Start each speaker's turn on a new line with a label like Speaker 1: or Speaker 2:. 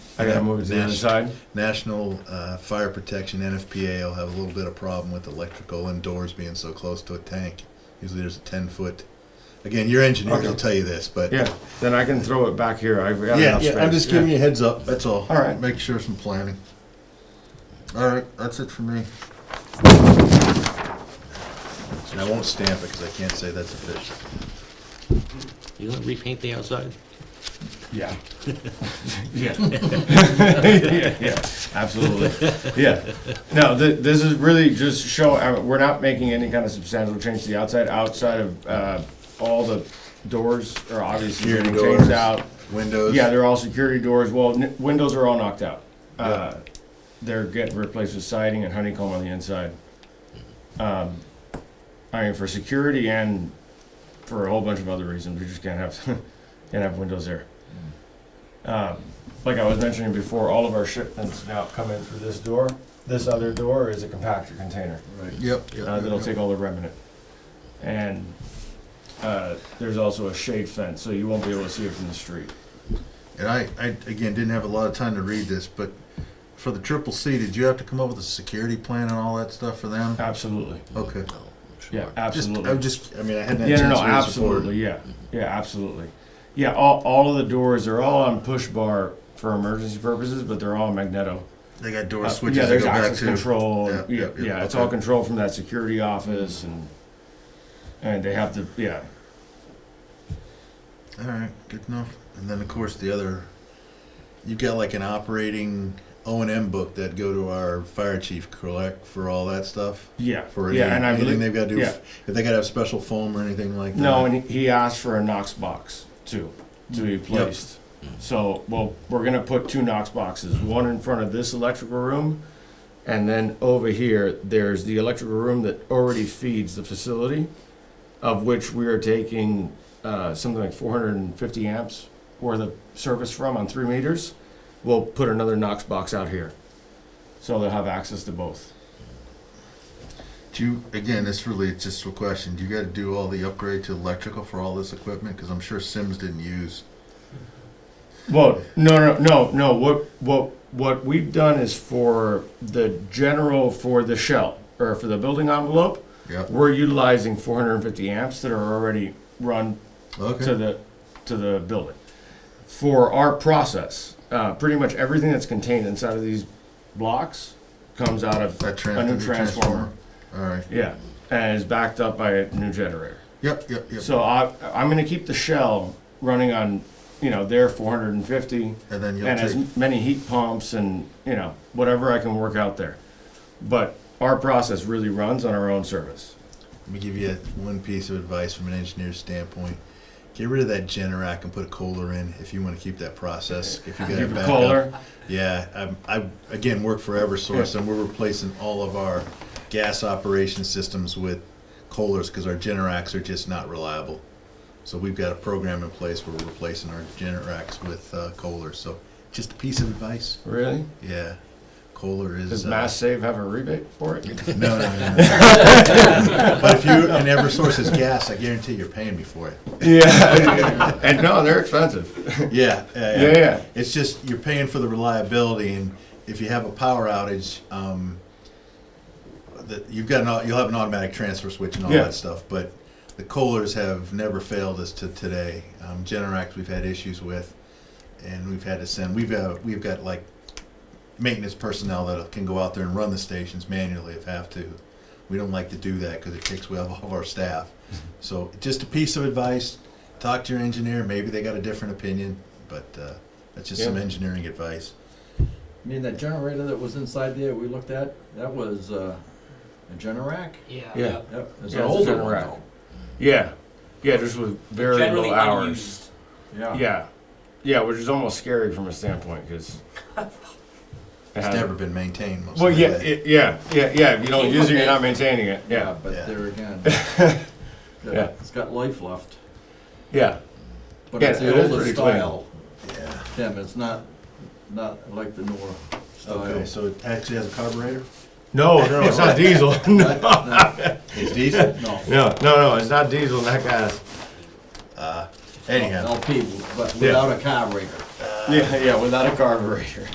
Speaker 1: I gotta move it to the other
Speaker 2: Nash-
Speaker 1: side.
Speaker 2: National uh, Fire Protection, NFPA, will have a little bit of problem with electrical and doors being so close to a tank. Usually there's a 10 foot. Again, your engineers
Speaker 1: Okay.
Speaker 2: will tell you this, but
Speaker 1: Yeah, then I can throw it back here. I've got
Speaker 2: yeah,
Speaker 1: enough
Speaker 2: yeah, I'm
Speaker 1: space.
Speaker 2: just giving you a heads up. That's all.
Speaker 1: All right.
Speaker 2: Make sure some planning. All right, that's it for me. And I won't stamp it because I can't say that's official.
Speaker 3: You gonna repaint the outside?
Speaker 1: Yeah. Yeah. Yeah, yeah, absolutely. Yeah. No, th- this is really just show, uh, we're not making any kind of substantial change to the outside, outside of, uh, all the doors are obviously being changed out.
Speaker 2: windows.
Speaker 1: Yeah, they're all security doors, well, n- windows are all knocked out. Uh, They're getting replaced with siding and honeycomb on the inside. Um, I mean, for security and for a whole bunch of other reasons, we just can't have, can't have windows there. Um, Like I was mentioning before, all of our shipments now come in through this door. This other door is a compactor container
Speaker 2: Right. Yep. yep,
Speaker 1: uh,
Speaker 2: yep,
Speaker 1: that'll
Speaker 2: yep.
Speaker 1: take all the remnant. And uh, there's also a shade fence, so you won't be able to see it from the street.
Speaker 2: And I, I again didn't have a lot of time to read this, but for the triple C, did you have to come up with a security plan and all that stuff for them?
Speaker 1: Absolutely.
Speaker 2: Okay.
Speaker 3: No, sure.
Speaker 1: Yeah,
Speaker 2: Just,
Speaker 1: absolutely.
Speaker 2: I just, I mean, I hadn't had
Speaker 1: yeah, no,
Speaker 2: chance
Speaker 1: no,
Speaker 2: to read this before.
Speaker 1: absolutely. Yeah, yeah, absolutely. Yeah, all, all of the doors are all on push bar for emergency purposes, but they're all magneto.
Speaker 2: They got
Speaker 1: Uh,
Speaker 2: door switches.
Speaker 1: yeah,
Speaker 2: to
Speaker 1: there's
Speaker 2: go back
Speaker 1: access
Speaker 2: to.
Speaker 1: control.
Speaker 2: Yeah,
Speaker 1: Yeah, yeah,
Speaker 2: yeah, yeah,
Speaker 1: it's
Speaker 2: okay.
Speaker 1: all controlled from that security office, and and they have the yeah.
Speaker 2: All right, good enough. And then of course the other, you've got like an operating O and M book that go to our fire chief correct for all that stuff.
Speaker 1: Yeah,
Speaker 2: For any,
Speaker 1: yeah, and I
Speaker 2: anything
Speaker 1: believe
Speaker 2: they've got to do,
Speaker 1: yeah.
Speaker 2: if they got to have special foam or anything like that.
Speaker 1: No, and he asked for a Knox box too, to be placed.
Speaker 2: Mm.
Speaker 1: So, well, we're gonna put two Knox boxes, one in front of this electrical room, and then over here, there's the electrical room that already feeds the facility, of which we are taking, uh, something like four hundred and fifty amps worth of service from on three meters. We'll put another Knox box out here, so they'll have access to both.
Speaker 2: Do you, again, this really is just a question. Do you got to do all the upgrade to electrical for all this equipment? Because I'm sure Sims didn't use.
Speaker 1: Well, no, no, no, no. What what what we've done is for the general for the shell or for the building envelope,
Speaker 2: Yep.
Speaker 1: we're utilizing 450 amps that are already run
Speaker 2: Okay.
Speaker 1: to the to the building. For our process, uh, pretty much everything that's contained inside of these blocks comes out of
Speaker 2: that tran-
Speaker 1: a new
Speaker 2: the
Speaker 1: transformer.
Speaker 2: All right.
Speaker 1: Yeah, and is backed up by a new generator.
Speaker 2: Yep. Yep. Yep.
Speaker 1: So I I'm going to keep the shell running on you know their 450
Speaker 2: and then you'll
Speaker 1: and
Speaker 2: take.
Speaker 1: as many heat pumps and you know whatever I can work out there. But our process really runs on our own service.
Speaker 2: Let me give you one piece of advice from an engineer's standpoint. Get rid of that Generac and put a Kohler in if you want to keep that process. If you got
Speaker 1: Keep
Speaker 2: it
Speaker 1: a
Speaker 2: back
Speaker 1: Kohler.
Speaker 2: up. Yeah, um, I, I again work for EverSource, and we're replacing all of our gas operation systems with Kohlers because our Generacs are just not reliable. So we've got a program in place where we're replacing our Generacs with uh, Kohlers. So just a piece of advice.
Speaker 1: Really?
Speaker 2: Yeah, Kohler is.
Speaker 1: Does
Speaker 2: uh,
Speaker 1: Mass Save have a rebate for it?
Speaker 2: no, no, no. no. but if you and EverSource is gas, I guarantee you're paying me for it.
Speaker 1: yeah. and no, they're expensive.
Speaker 2: Yeah, yeah,
Speaker 1: Yeah, yeah.
Speaker 2: It's just you're paying for the reliability, and if you have a power outage, um, that you've got an au- you'll have an automatic transfer switch and all
Speaker 1: Yeah.
Speaker 2: that stuff. But the Kohlers have never failed us to today. Um, Generac we've had issues with, and we've had to send. We've got we've got like maintenance personnel that can go out there and run the stations manually if have to. We don't like to do that because it takes away all of our staff. So just a piece of advice, talk to your engineer, maybe they got a different opinion, but uh, that's just some
Speaker 1: Yeah.
Speaker 2: engineering advice.
Speaker 4: I mean, that generator that was inside there we looked at, that was uh, a Generac.
Speaker 5: Yeah.
Speaker 1: Yeah.
Speaker 4: Yep, it's
Speaker 1: Yeah,
Speaker 4: an
Speaker 1: it's a
Speaker 4: older one
Speaker 1: Generac.
Speaker 4: though.
Speaker 1: Yeah. Yeah, just with very
Speaker 5: Generally
Speaker 1: low hours.
Speaker 5: unused.
Speaker 1: Yeah. Yeah, which is almost scary from a standpoint because
Speaker 2: It's never been maintained most of
Speaker 1: Uh-huh. Well,
Speaker 2: the
Speaker 1: yeah,
Speaker 2: way.
Speaker 1: it, yeah, yeah, yeah. If you don't use it, you're not maintaining it. Yeah.
Speaker 4: but
Speaker 2: Yeah.
Speaker 4: there again,
Speaker 1: Yeah.
Speaker 4: it's got life left.
Speaker 1: Yeah.
Speaker 4: But
Speaker 1: Yeah,
Speaker 4: it's
Speaker 1: it
Speaker 4: the
Speaker 1: is
Speaker 4: older
Speaker 1: pretty clean.
Speaker 4: style,
Speaker 2: Yeah.
Speaker 4: Tim. It's not not like the newer style.
Speaker 2: Okay, so it actually has a carburetor?
Speaker 1: No, no, it's not diesel. no.
Speaker 2: It's diesel?
Speaker 4: No,
Speaker 1: No, no, no, it's not diesel, that gas.
Speaker 2: Anyhow.
Speaker 4: LP, but
Speaker 1: Yeah.
Speaker 4: without a carburetor.
Speaker 1: Yeah, yeah, without a carburetor.